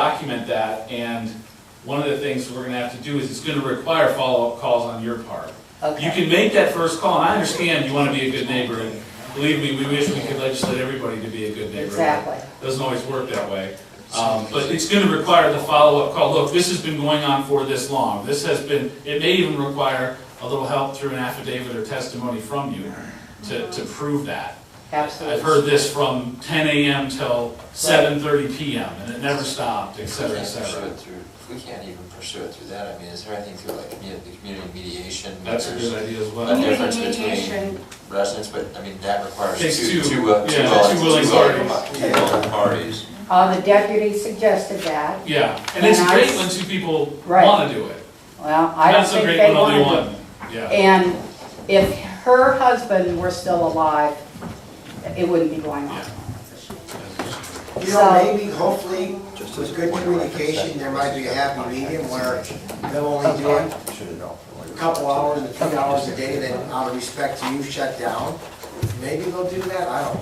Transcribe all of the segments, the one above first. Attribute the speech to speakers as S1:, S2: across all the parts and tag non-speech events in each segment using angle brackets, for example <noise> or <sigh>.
S1: document that, and one of the things we're gonna have to do is it's gonna require follow-up calls on your part. You
S2: Okay,
S1: can make that first call, and I understand you wanna be a good neighbor, and believe me, we wish we could legislate everybody to be a good neighbor.
S2: exactly.
S1: Doesn't always work that way. Um, but it's gonna require the follow-up call, look, this has been going on for this long, this has been, it may even require a little help through an affidavit or testimony from you to, to prove that.
S2: Absolutely.
S1: I've heard this from ten AM till seven thirty PM, and it never stopped, et
S3: We
S1: cetera, et
S3: can't pursue
S1: cetera.
S3: it through, if we can't even pursue it through that, I mean, is there anything through like commu- the community mediation?
S1: That's a good idea as well.
S3: Okay.
S4: Community
S3: difference between-
S4: mediation,
S3: Residents, but I mean, that requires
S1: Takes
S3: two,
S1: two,
S3: two, uh,
S1: yeah,
S3: two willing,
S1: two willing
S3: two willing
S1: parties.
S3: two willing parties.
S2: Uh, the deputy suggested that.
S1: Yeah, and it's
S2: And I-
S1: great when two people
S2: Right.
S1: wanna do it.
S2: Well, I don't
S1: Not so
S2: think
S1: great
S2: they
S1: when only
S2: wanted
S1: one,
S2: to.
S1: yeah.
S2: And if her husband were still alive, it wouldn't be going on.
S5: You know,
S2: So-
S5: maybe, hopefully, with good communication, there might be a happy medium where they'll only do it a couple hours, a few hours a day, then out of respect to you, shut down. Maybe they'll do that, I don't know.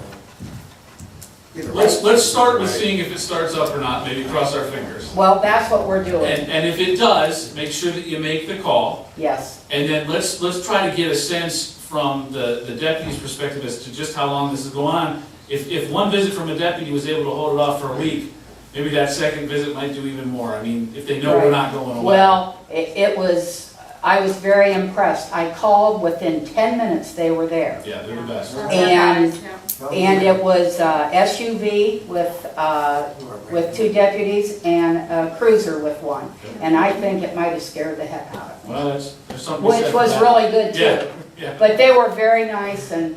S5: Either way.
S1: Let's, let's start with seeing if it starts up or not, maybe cross our fingers.
S2: Well, that's what we're doing,
S1: And, and if it does, make sure that you make the call,
S2: yes.
S1: and then let's, let's try to get a sense from the, the deputy's perspective as to just how long this is going on. If, if one visit from a deputy was able to hold it off for a week, maybe that second visit might do even more, I mean, if they know we're
S2: Right.
S1: not going away.
S2: Well, it, it was, I was very impressed. I called, within ten minutes, they were there.
S1: Yeah, they're the best.
S4: that's
S2: And-
S4: advised, yeah.
S2: And it was uh, SUV with, uh, with two deputies and a cruiser with one. And I think it might have scared the heck out of me,
S1: Well, that's, there's something to be said
S2: which
S1: for
S2: was
S1: that.
S2: really good too.
S1: Yeah, yeah,
S2: But they were very nice and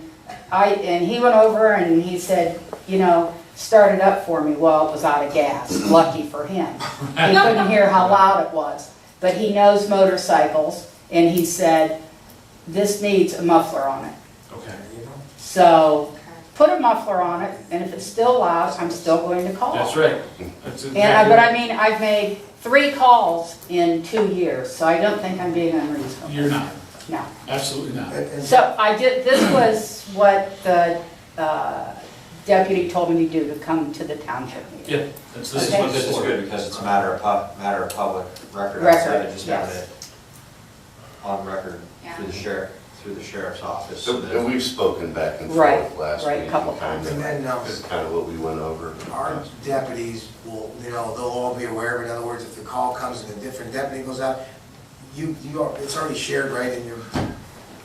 S2: I, and he went over and he said, you know, start it up for me. Well, it was out of gas, lucky for him.
S1: <laughs>
S2: He couldn't hear how loud it was, but he knows motorcycles and he said, this needs a muffler on it.
S1: okay.
S2: So put a muffler on it and if it's still loud, I'm still going to call.
S1: That's right. That's
S2: And I, but I
S1: exactly,
S2: mean, I've made three calls in two years, so I don't think I'm being unreasonable.
S1: you're not,
S2: No.
S1: absolutely not.
S5: And- and-
S2: So I did, this was what the uh, deputy told me to do, to come to the township meeting.
S1: Yeah, that's, this
S3: This is,
S1: is what
S3: this is good because it's a matter of pub, matter of public record, outside
S2: Record,
S3: of just having
S2: yes.
S3: it on record through the
S4: Yeah.
S3: sheriff, through the sheriff's office. so
S6: So,
S3: that-
S6: And we've spoken back and
S2: Right,
S6: forth last week.
S2: right, a couple
S6: kind of-
S5: times. And then, um,
S6: That's kind of what we went over.
S5: Our deputies will, you know, they'll all be aware of it, in other words, if the call comes and a different deputy goes out, you, you, are- it's already shared, right, in your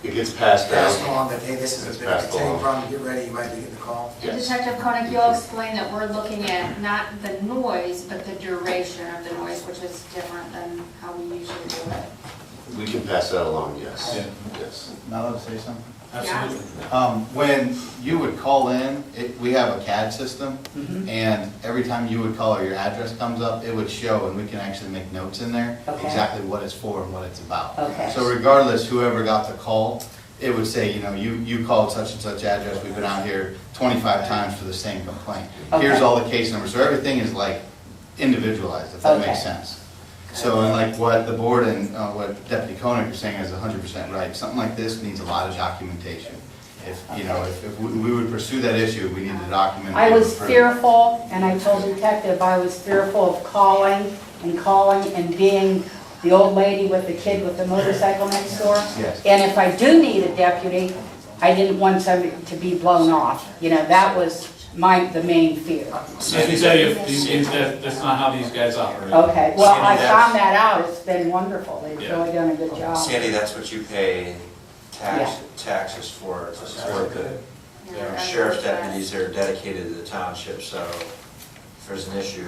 S6: It gets passed
S5: pass
S6: down.
S5: on, that, hey, this is
S6: It's
S5: a big, it's
S6: passed
S5: any
S6: along.
S5: problem, get ready, you might be getting the call.
S6: Yes.
S4: Detective Koenig, you'll explain that we're looking at not the noise, but the duration of the noise, which is different than how we usually do it.
S6: We can pass that along, yes.
S1: Yeah.
S6: Yes.
S7: Now let me say something.
S1: Absolutely.
S7: Um, When you would call in, it- we have a CAD system,
S2: Mm-hmm.
S7: and every time you would call or your address comes up, it would show, and we can actually make notes in there,
S2: Okay.
S7: exactly what it's for and what it's about.
S2: Okay.
S7: So regardless, whoever got the call, it would say, you know, you you called such and such address, we've been out here 25 times for the same complaint. Here's
S2: Okay.
S7: all the case numbers, so everything is like individualized, if that
S2: Okay.
S7: makes sense. So, and like what the board and uh, what Deputy Koenig are saying is hundred percent right. Something like this needs a lot of documentation. If, you know, if if we we would pursue that issue, we need to document. it.
S2: I was fearful, and I told detective, I was fearful of calling and calling and being the old lady with the kid with the motorcycle next door.
S7: Yes.
S2: And if I do need a deputy, I didn't want somebody to be blown off. You know, that was my, the main fear.
S1: Let me tell you, these, these- that, that's not how these guys operate.
S2: Okay, well, I
S3: Sandy, that's-
S2: found that out, it's been wonderful, they've
S1: Yeah.
S2: really done a good job.
S3: Sandy, that's what you pay tax, taxes for, it's for the
S4: Yeah.
S3: sheriff's deputies that are dedicated to the township, so if there's an issue,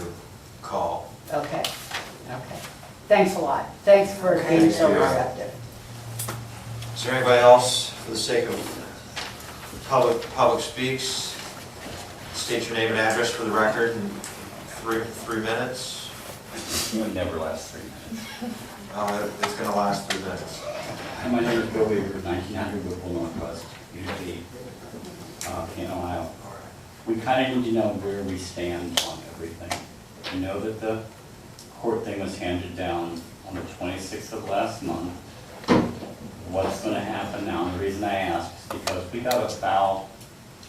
S3: call.
S2: Okay, okay. Thanks a lot. Thanks for being so receptive.
S3: Is there anybody else, for the sake of public, public speaks? State your name and address for the record in three, three minutes.
S8: It would never last three minutes.
S3: Uh, It's gonna last three minutes.
S8: And my name is Bill Weaver, 1900 Whipple Northwest, Unity, uh, Canton, Ohio. We kind of need to know where we stand on everything. We know that the court thing was handed down on the 26th of last month. What's going to happen now? And the reason I ask is because we got a foul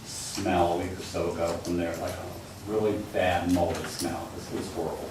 S8: smell a week or so ago from there, like a really bad moldy smell. This was horrible.